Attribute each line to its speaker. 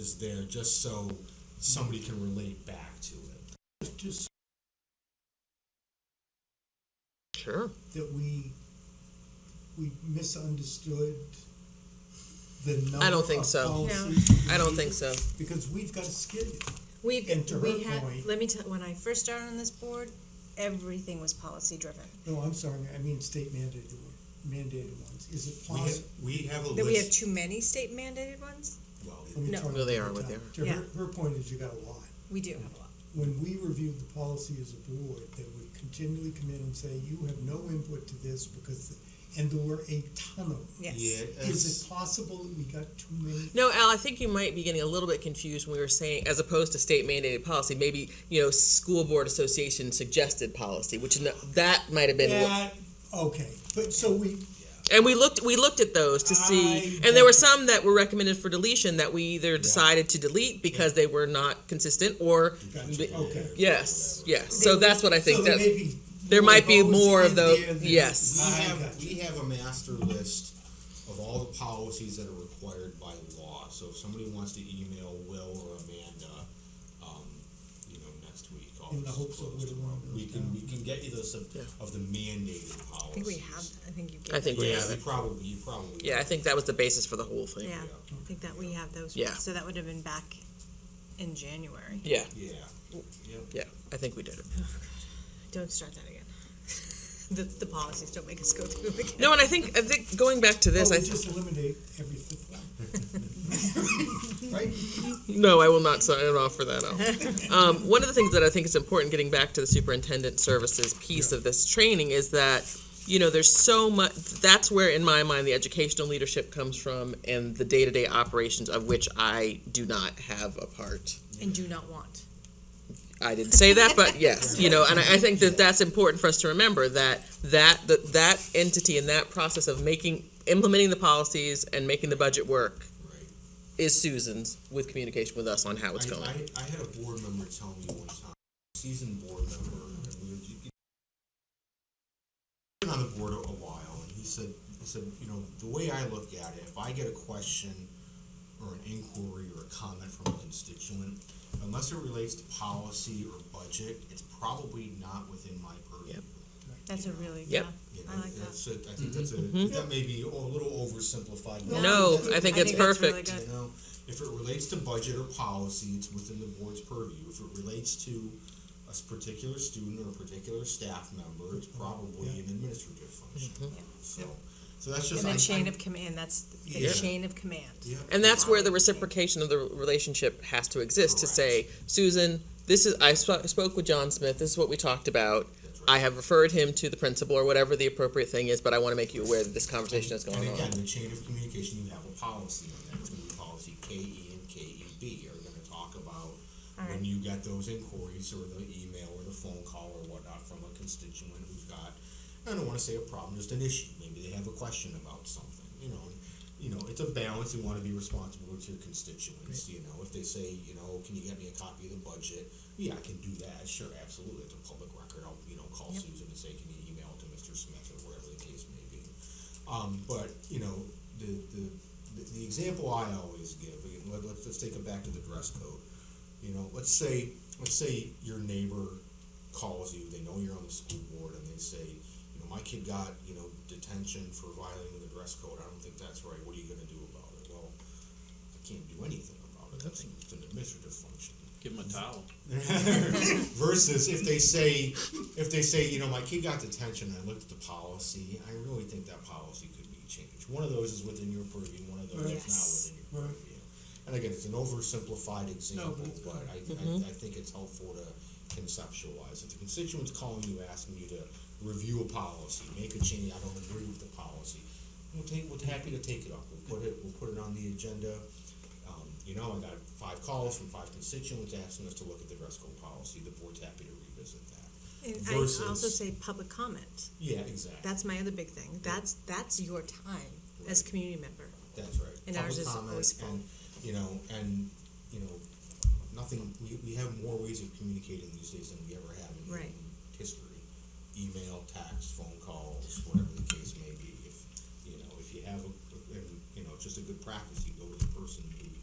Speaker 1: is there just so somebody can relate back to it.
Speaker 2: It's just
Speaker 3: Sure.
Speaker 2: that we, we misunderstood the number
Speaker 3: I don't think
Speaker 2: of
Speaker 3: so. No.
Speaker 2: policies
Speaker 3: I don't
Speaker 2: we
Speaker 3: think
Speaker 2: needed,
Speaker 3: so.
Speaker 2: Because we've got a skid,
Speaker 4: We've,
Speaker 2: And to
Speaker 4: we
Speaker 2: her
Speaker 4: had,
Speaker 2: point-
Speaker 4: let me tell, when I first started on this board, everything was policy driven.
Speaker 2: no, I'm sorry, I mean state mandated one, mandated ones, is it
Speaker 1: We have,
Speaker 2: possible?
Speaker 1: we have a
Speaker 4: That we have
Speaker 1: Oh, list,
Speaker 4: too many state mandated ones?
Speaker 1: well,
Speaker 2: Let me
Speaker 4: No.
Speaker 2: try
Speaker 3: No, they
Speaker 2: one
Speaker 3: are
Speaker 2: more
Speaker 3: what they
Speaker 2: time.
Speaker 3: are.
Speaker 2: To her,
Speaker 4: Yeah.
Speaker 2: her point is you got a lot.
Speaker 4: We do have a lot.
Speaker 2: When we reviewed the policy as a board, they would continually come in and say, you have no input to this because, and there were a ton of them.
Speaker 4: Yes.
Speaker 1: yeah,
Speaker 2: Is
Speaker 1: it's-
Speaker 2: it possible that we got too many?
Speaker 3: No, Al, I think you might be getting a little bit confused when we were saying, as opposed to state mandated policy, maybe, you know, school board association suggested policy, which is not, that might have been. what-
Speaker 2: That, okay, but so we,
Speaker 3: And we looked, we looked at those to see,
Speaker 2: I
Speaker 3: and there were some that were recommended for deletion that we either decided to delete because they were not consistent or,
Speaker 2: gotcha, okay.
Speaker 3: yes, yes. So that's what I
Speaker 2: So
Speaker 3: think
Speaker 2: there may
Speaker 3: that,
Speaker 2: be.
Speaker 3: there might be
Speaker 2: those
Speaker 3: more of
Speaker 2: in
Speaker 3: those-
Speaker 2: there that-
Speaker 3: yes.
Speaker 1: We
Speaker 2: I
Speaker 1: have,
Speaker 2: gotcha.
Speaker 1: we have a master list of all the policies that are required by law, so if somebody wants to email Will or Amanda, um, you know, next week,
Speaker 2: In the
Speaker 1: office
Speaker 2: hopes
Speaker 1: is
Speaker 2: that
Speaker 1: closed
Speaker 2: we'll
Speaker 1: tomorrow.
Speaker 2: run
Speaker 1: We
Speaker 2: those
Speaker 1: can,
Speaker 2: down.
Speaker 1: we can get you those of, of the mandated policies.
Speaker 4: I think we have, I think you gave.
Speaker 3: I think
Speaker 4: that
Speaker 3: we
Speaker 4: to
Speaker 1: Yeah,
Speaker 3: have
Speaker 4: us.
Speaker 1: you
Speaker 3: it.
Speaker 1: probably, you probably.
Speaker 3: yeah, I think that was the basis for the whole thing.
Speaker 4: Yeah, I think that we have those.
Speaker 3: Yeah.
Speaker 4: So that would have been back in January.
Speaker 3: Yeah,
Speaker 1: Yeah, yep.
Speaker 3: yeah, I think we did it.
Speaker 4: Don't start that again. The, the policies don't make us go through them again.
Speaker 3: No, and I think, I think going back to this,
Speaker 2: Oh,
Speaker 3: I,
Speaker 2: we just eliminate every fifth one. Right?
Speaker 3: No, I will not sign it off for that. Al. um, one of the things that I think is important, getting back to the superintendent services piece of this training, is that you know there's so much. That's where, in my mind, the educational leadership comes from, and the day-to-day operations of which I do not have a part.
Speaker 4: And do not want.
Speaker 3: I didn't say that, but yes, you know, and I, I think that that's important for us to remember that that that that entity and that process of making implementing the policies and making the budget work
Speaker 1: right.
Speaker 3: is Susan's with communication with us on how it's
Speaker 1: I,
Speaker 3: going.
Speaker 1: I, I had a board member tell me one time, seasoned board member, and we were, you been on the board a while, and he said, he said, you know, the way I look at it, if I get a question or an inquiry or a comment from a constituent, unless it relates to policy or budget, it's probably not within my purview.
Speaker 3: Yep.
Speaker 4: That's a really, yeah,
Speaker 3: Yep.
Speaker 1: You know,
Speaker 4: I like that.
Speaker 1: that's a, I think that's a, that may be a little oversimplified. but-
Speaker 3: No, I think it's
Speaker 4: that's really
Speaker 3: perfect.
Speaker 4: good.
Speaker 1: you know, if it relates to budget or policy, it's within the board's purview. If it relates to a s- particular student or a particular staff member, it's probably an administrative function. So, so that's just.
Speaker 4: Mm-hmm. And
Speaker 1: I-
Speaker 4: the chain
Speaker 1: I-
Speaker 4: of command, that's the
Speaker 1: Yeah.
Speaker 4: chain of command.
Speaker 1: Yeah.
Speaker 3: And that's where the reciprocation of the relationship has to exist to say, Susan, this is, I sp- spoke with John Smith, this is what we talked about.
Speaker 1: That's right.
Speaker 3: I have referred him to the principal or whatever the appropriate thing is, but I want to make you aware that this conversation is going
Speaker 1: And again,
Speaker 3: on.
Speaker 1: the chain of communication, you have a policy on that, it's gonna be policy K E and K E B are gonna talk about when
Speaker 4: Alright.
Speaker 1: you get those inquiries or the email or the phone call or whatnot from a constituent who's got, I don't wanna say a problem, just an issue, maybe they have a question about something, you know, and, you know, it's a balance, you wanna be responsible to your constituents, you know, if they say, you know, can you get me a copy of the budget? Yeah, I can do that, sure, absolutely, it's a public record, I'll, you know, call Susan and say, can you email it to Mr. Smith or wherever the case may be. Um, but, you know, the, the, the- the example I always give, again, let, let's, let's take it back to the dress code. You know, let's say, let's say your neighbor calls you, they know you're on the school board, and they say, you know, my kid got, you know, detention for violating the dress code, I don't think that's right, what are you gonna do about it? Well, I can't do anything about it, that's, it's an administrative function.
Speaker 5: Give him a towel.
Speaker 1: Versus if they say, if they say, you know, my kid got detention, I looked at the policy, I really think that policy could be changed. One of those is within your purview, and one of those
Speaker 4: Yes.
Speaker 1: is not within your
Speaker 2: Right.
Speaker 1: purview. And again, it's an oversimplified example,
Speaker 2: but it's
Speaker 1: but I, I, I think it's helpful to conceptualize. If the constituent's calling you, asking you to review a policy, make a change, I don't agree with the policy, we'll take, we're happy to take it up, we'll put it, we'll put it on the agenda. Um, you know, I got five calls from five constituents asking us to look at the dress code policy, the board's happy to revisit that.
Speaker 4: And I
Speaker 1: Versus-
Speaker 4: also say public comment.
Speaker 1: Yeah, exactly,
Speaker 4: That's my other big thing. That's, that's your time as
Speaker 1: Right.
Speaker 4: community member.
Speaker 1: that's right.
Speaker 4: And ours
Speaker 1: Public
Speaker 4: is
Speaker 1: comment
Speaker 4: always full.
Speaker 1: and, You know, and, you know, nothing, we, we have more ways of communicating these days than we ever have in
Speaker 4: Right.
Speaker 1: history. Email, text, phone calls, whatever the case may be, if, you know, if you have a, and, you know, it's just a good practice, you go to the person who